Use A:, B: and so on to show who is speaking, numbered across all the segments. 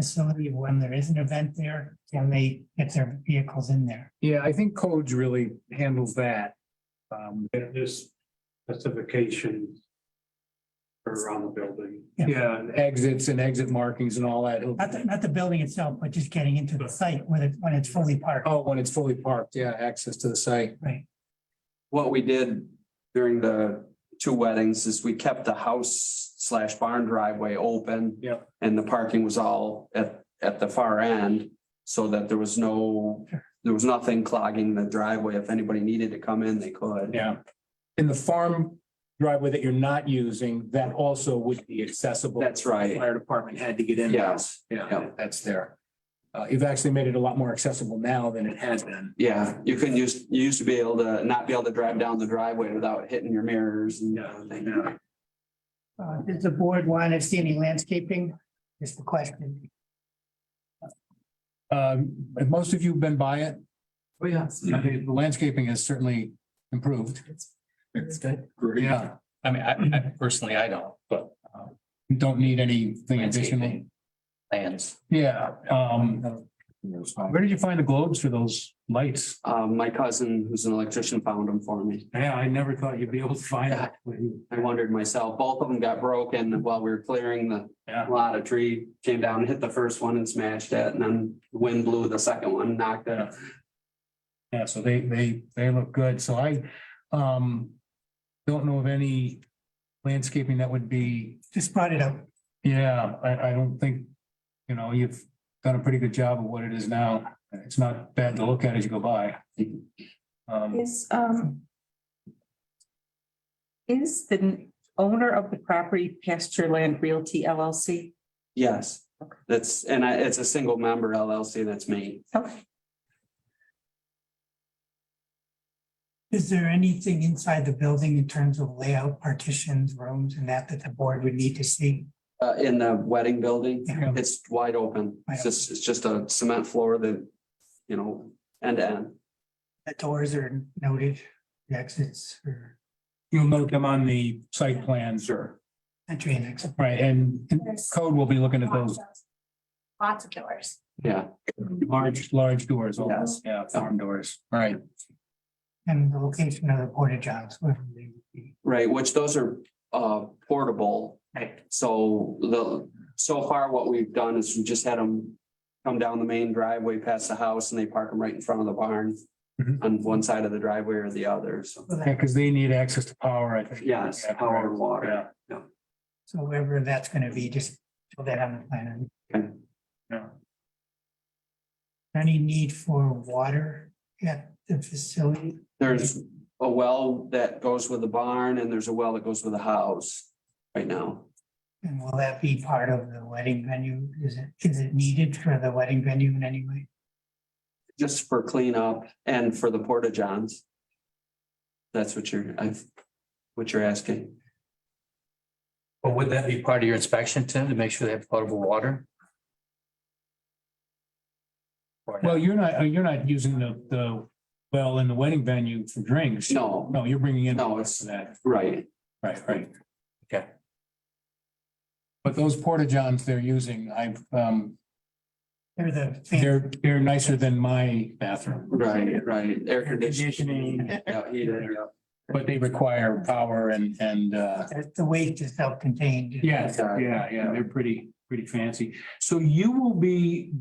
A: facility when there is an event there? Can they get their vehicles in there?
B: Yeah, I think codes really handles that. Um,
C: Get this specification around the building.
A: Yeah.
B: yeah, and exits and exit markings and all that.
A: Not the, not the building itself, but just getting into the site when it, when it's fully parked,
B: Oh, when it's fully parked, yeah, access to the site.
A: right?
D: what we did during the two weddings is we kept the house slash barn driveway open.
B: Yep.
D: And the parking was all at, at the far end, so that there was no, there was nothing clogging the driveway. If anybody needed to come in, they could.
B: Yeah. In the farm driveway that you're not using, that also would be accessible.
D: That's right.
B: Fire department had to get in.
D: Yes.
B: Yeah,
D: Yep.
B: that's there. Uh, you've actually made it a lot more accessible now than it has been.
D: Yeah, you couldn't use, you used to be able to not be able to drive down the driveway without hitting your mirrors and everything.
A: Uh, does the board want to see any landscaping? Just the question.
B: Um, and most of you have been by it.
E: Oh, yeah.
B: I mean, The landscaping has certainly improved.
E: It's good.
B: Yeah,
E: I mean, I, I personally, I don't, but. um,
B: you don't need anything additional.
E: landscaping Plans.
B: Yeah, um, where did you find the globes for those lights?
D: Um, my cousin, who's an electrician, found them for me.
B: Yeah, I never thought you'd be able to find
D: that.
B: You
D: I wondered myself, both of them got broken while we were clearing the
B: Yeah.
D: lot. A tree came down, and hit the first one and smashed it, and then the wind blew the second one, knocked it.
B: Yeah, so they, they, they look good. So I, um, don't know of any landscaping that would be,
A: Just brought it up.
B: yeah, I, I don't think, you know, you've done a pretty good job of what it is now. It's not bad to look at as you go by. Um,
F: Is, um. Is the owner of the property Pasture Land Realty LLC?
D: Yes, that's, and I, it's a single member LLC, that's me.
F: Okay.
A: Is there anything inside the building in terms of layout, partitions, rooms and that that the board would need to see?
D: Uh, in the wedding building,
B: Yeah.
D: it's wide open. It's just, it's just a cement floor that, you know, end to end.
A: The doors are noted, the exits or
B: you'll note them on the site plans.
D: Sure.
A: entry and exit.
B: Right, and code will be looking at those
G: Lots of doors.
D: Yeah,
B: large, large doors, all those, yeah, farm doors, right?
A: And the location of the porta johns. wherever they would be.
D: right, which those are, uh, portable.
A: Right.
D: So the, so far what we've done is we just had them come down the main driveway past the house and they park them right in front of the barn.
B: Mhm.
D: On one side of the driveway or the other, so,
A: So
B: Yeah,
A: that-
B: because they need access to power, I think.
D: yes, power and water.
B: Yeah.
A: So wherever that's going to be, just put that on the plan.
D: Okay.
B: Yeah.
A: Any need for water at the facility?
D: There's a well that goes with the barn and there's a well that goes with the house right now.
A: And will that be part of the wedding venue? Is it, is it needed for the wedding venue in any way?
D: Just for cleanup and for the porta johns. That's what you're, I've, what you're asking.
E: Well, would that be part of your inspection, Tim, to make sure they have potable water? Or
D: Oh,
E: not?
B: Well, you're not, uh, you're not using the, the, well, in the wedding venue for drinks.
D: No,
B: No, you're bringing in.
D: No, it's-
B: for That,
D: right,
B: right, right.
E: Okay.
B: But those porta johns they're using, I've, um,
A: Or the.
B: they're, they're nicer than my bathroom,
D: right, right. Air conditioning.
B: Conditioning.
D: Yeah, heater, yeah.
B: but they require power and, and, uh,
A: The- The waste is self-contained.
B: yeah, yeah, yeah, they're pretty, pretty fancy. So you will be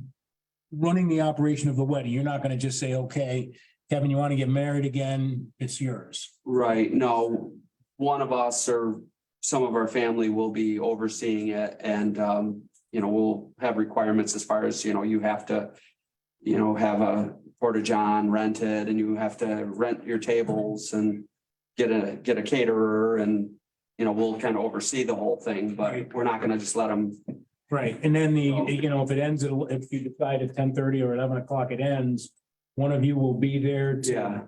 B: running the operation of the wedding. You're not gonna just say, okay, Kevin, you wanna get married again? It's yours.
D: Right, no, one of us or some of our family will be overseeing it and, um, you know, we'll have requirements as far as, you know, you have to, you know, have a porta john rented and you have to rent your tables and get a, get a caterer and, you know, we'll kind of oversee the whole thing, but
B: Right.
D: we're not gonna just let them,
B: Right, and then the, you know, if it ends, at if you decide at ten thirty or eleven o'clock it ends, one of you will be there. to-
D: Yeah.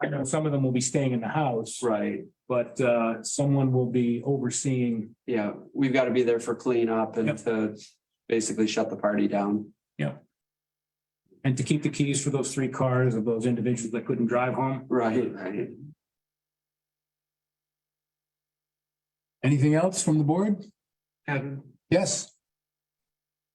B: I know some of them will be staying in the house,
D: right,
B: but uh, someone will be overseeing.
D: yeah, we've got to be there for cleanup and
B: Yep.
D: to basically shut the party down.
B: And to keep the keys for those three cars of those individuals that couldn't drive home.
D: Right, right.
B: Anything else from the board?
C: Kevin,
B: Yes.